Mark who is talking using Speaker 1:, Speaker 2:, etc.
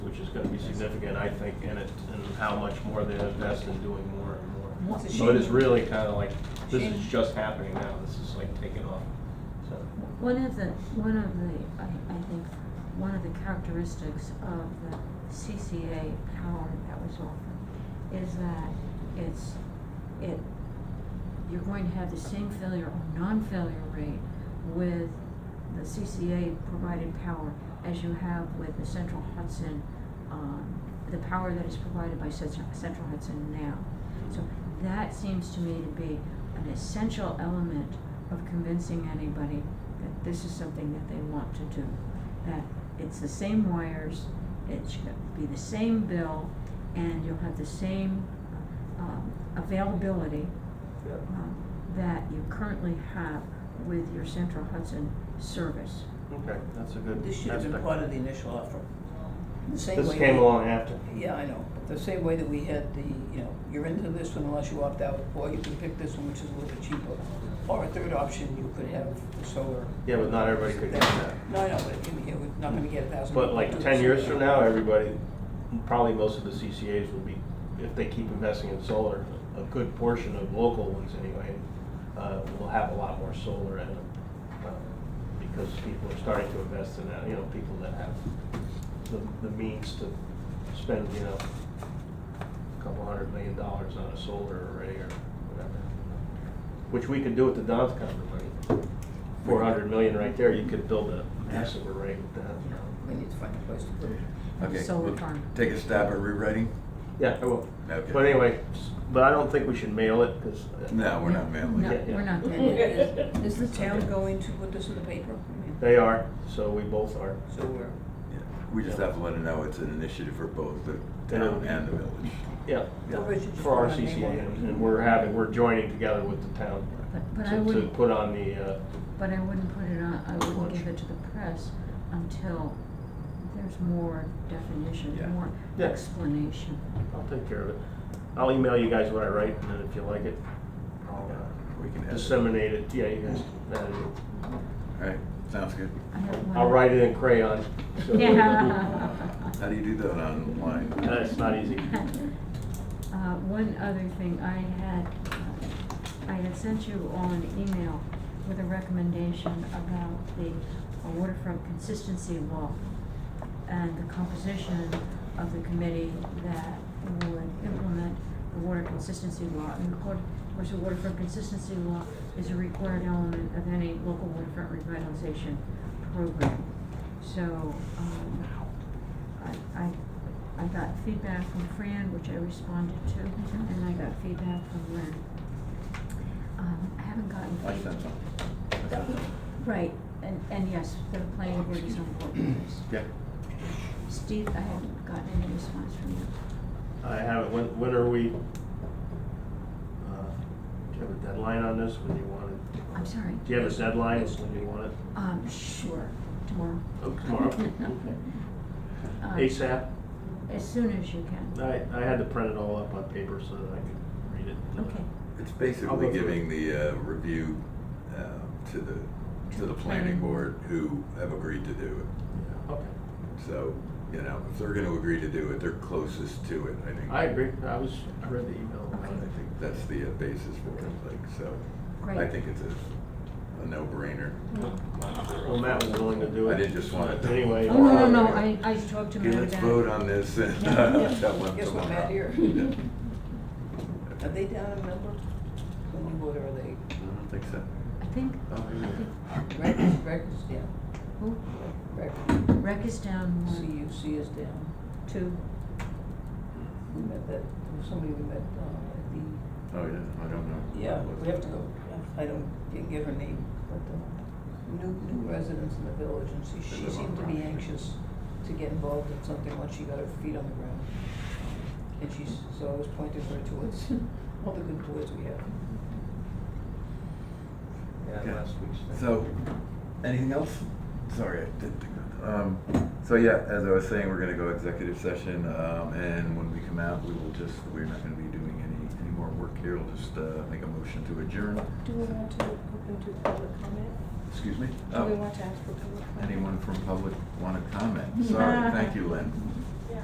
Speaker 1: gonna be significant, I think, in it, and how much more they invest in doing more and more.
Speaker 2: It's a
Speaker 1: So it is
Speaker 2: shame.
Speaker 1: really kinda like, this is
Speaker 2: Shame.
Speaker 1: just happening now, this is like taking off, so.
Speaker 3: One of the, one of the, I, I think, one of the characteristics of the CCA power that was offered is that it's, it, you're going to have the same failure or non-failure rate with the CCA provided power as you have with the Central Hudson, um, the power that is provided by Central Central Hudson now. So that seems to me to be an essential element of convincing anybody that this is something that they want to do. That it's the same wires, it should be the same bill, and you'll have the same, um, availability,
Speaker 1: Yeah.
Speaker 3: um, that you currently have with your Central Hudson service.
Speaker 1: Okay, that's a good.
Speaker 2: This should have been
Speaker 1: aspect.
Speaker 2: part of the initial offer. The same
Speaker 1: This
Speaker 2: way
Speaker 1: came
Speaker 2: that-
Speaker 1: along after.
Speaker 2: Yeah, I know, but the same way that we had the, you know, you're into this one unless you opt out, or you can pick this one, which is a little bit cheaper. Or a third option, you could have the solar.
Speaker 1: Yeah, but not everybody could get that.
Speaker 2: No, I know, but you know, we're not gonna get a thousand.
Speaker 1: But like
Speaker 2: people to
Speaker 1: ten
Speaker 2: do
Speaker 1: years
Speaker 2: it.
Speaker 1: from now, everybody, probably most of the CCAs will be, if they keep investing in solar, a good portion of local ones anyway, uh, will have a lot more solar in them. uh, Because people are starting to invest in that, you know, people that have the, the means to spend, you know, a couple hundred million dollars on a solar array or whatever. Which we could do with the Don's Cover money. Four hundred million right there, you could build a massive array with that.
Speaker 2: You know, We need to find a place to put it.
Speaker 4: Okay,
Speaker 3: Solar
Speaker 4: we'll
Speaker 3: farm.
Speaker 4: Take a stab at rewriting?
Speaker 1: Yeah, I will.
Speaker 4: Okay.
Speaker 1: But anyway, s- but I don't think we should mail it, because.
Speaker 4: No, we're not mailing
Speaker 3: No,
Speaker 4: it.
Speaker 1: Yeah,
Speaker 3: we're
Speaker 1: yeah.
Speaker 3: not doing
Speaker 2: And
Speaker 3: that.
Speaker 2: Is is the town going to put this in the paper? I mean,
Speaker 1: They are, so we both are.
Speaker 2: So we're,
Speaker 4: Yeah. We just have to let them know it's an initiative for both the town and the village.
Speaker 1: Yeah.
Speaker 4: Yeah.
Speaker 2: Or is it just
Speaker 1: For our
Speaker 2: one name
Speaker 1: CCA,
Speaker 2: or-
Speaker 1: and and we're having, we're joining together with the town
Speaker 3: But, but I
Speaker 1: to, to
Speaker 3: wouldn't,
Speaker 1: put on the, uh,
Speaker 3: but I wouldn't put it on, I wouldn't
Speaker 1: Lunch.
Speaker 3: give it to the press until there's more definition,
Speaker 4: Yeah.
Speaker 3: more
Speaker 1: Yeah.
Speaker 3: explanation.
Speaker 1: I'll take care of it. I'll email you guys what I write, and then if you like it, I'll uh,
Speaker 4: We can have it. All
Speaker 1: disseminate it, yeah, you guys, that is-
Speaker 4: right, sounds good.
Speaker 3: I have one-
Speaker 1: I'll write it in crayon. so-
Speaker 4: How do you do that online?
Speaker 1: That's not easy.
Speaker 3: Uh, one other thing, I had, uh, I had sent you all an email with a recommendation about the waterfront consistency law and the composition of the committee that would implement the water consistency law. And of course, of course, the waterfront consistency law is a required element of any local waterfront revitalization program. So, um, I, I, I got feedback from Fran, which I responded to, and I got feedback from Lynn. Um, I haven't gotten.
Speaker 4: I
Speaker 3: feed-
Speaker 4: sent some.
Speaker 3: Right, and, and yes, the planning board is on board with this.
Speaker 4: Yeah.
Speaker 3: Steve, I haven't gotten any response from you.
Speaker 1: I haven't, when, when are we? uh, Do you have a deadline on this, when you want it?
Speaker 3: I'm sorry.
Speaker 1: Do you have a deadline when you want it?
Speaker 3: Um, sure, tomorrow.
Speaker 1: Oh, tomorrow?
Speaker 3: Um,
Speaker 1: ASAP?
Speaker 3: As soon as you can.
Speaker 1: I, I had to print it all up on paper so that I could read it.
Speaker 3: Okay.
Speaker 4: It's
Speaker 1: I'll
Speaker 4: basically
Speaker 1: go through
Speaker 4: giving the uh, review um, to the, to the planning board who have agreed to do it.
Speaker 1: Yeah, Okay.
Speaker 4: So, you know, if they're gonna agree to do it, they're closest to it, I think.
Speaker 1: I agree. I was, I read the email.
Speaker 4: I think that's the uh, basis for it, like, so. I
Speaker 3: Great.
Speaker 4: think it's a, a no-brainer.
Speaker 1: Well, Matt was willing to do it.
Speaker 4: I didn't just want to.
Speaker 1: Anyway.
Speaker 3: Oh, no, no, no, I, I talked to
Speaker 4: Okay,
Speaker 3: Mary
Speaker 4: let's
Speaker 3: about it.
Speaker 4: vote on this and
Speaker 3: Yeah, yeah.
Speaker 4: tell them
Speaker 2: Guess what,
Speaker 4: tomorrow.
Speaker 2: Matt, here.
Speaker 4: Yeah.
Speaker 2: are they down in number? One vote, or are they,
Speaker 4: I don't think so.
Speaker 3: I think, I
Speaker 4: Oh, yeah.
Speaker 3: think,
Speaker 2: Rec, Rec is down,
Speaker 3: who,
Speaker 2: Rec,
Speaker 3: rec is down one,
Speaker 2: CUC is down.
Speaker 3: two,
Speaker 2: We met that, there was somebody we met, uh,
Speaker 4: Oh, yeah, I don't
Speaker 2: at the,
Speaker 4: know.
Speaker 2: yeah, we have to go, I don't, didn't get her name, but, uh, new, new residents in the village, and she,
Speaker 4: They
Speaker 2: she
Speaker 4: live on
Speaker 2: seemed to be
Speaker 4: Brown.
Speaker 2: anxious to get involved in something once she got her feet on the ground. And she's, so I was pointing her towards all the good boys we have.
Speaker 1: Yeah, last week's. thing.
Speaker 4: So, anything else? Sorry, I didn't think of that. Um, so yeah, as I was saying, we're gonna go executive session, um, and when we come out, we will just, we're not gonna be doing any, any more work here. We'll just, uh, make a motion to adjourn.
Speaker 5: Do we want to open to public comment?
Speaker 4: Excuse me?
Speaker 5: Do we
Speaker 4: Oh,
Speaker 5: want to ask for public comment?
Speaker 4: Anyone from public wanna comment? Sorry, thank you, Lynn.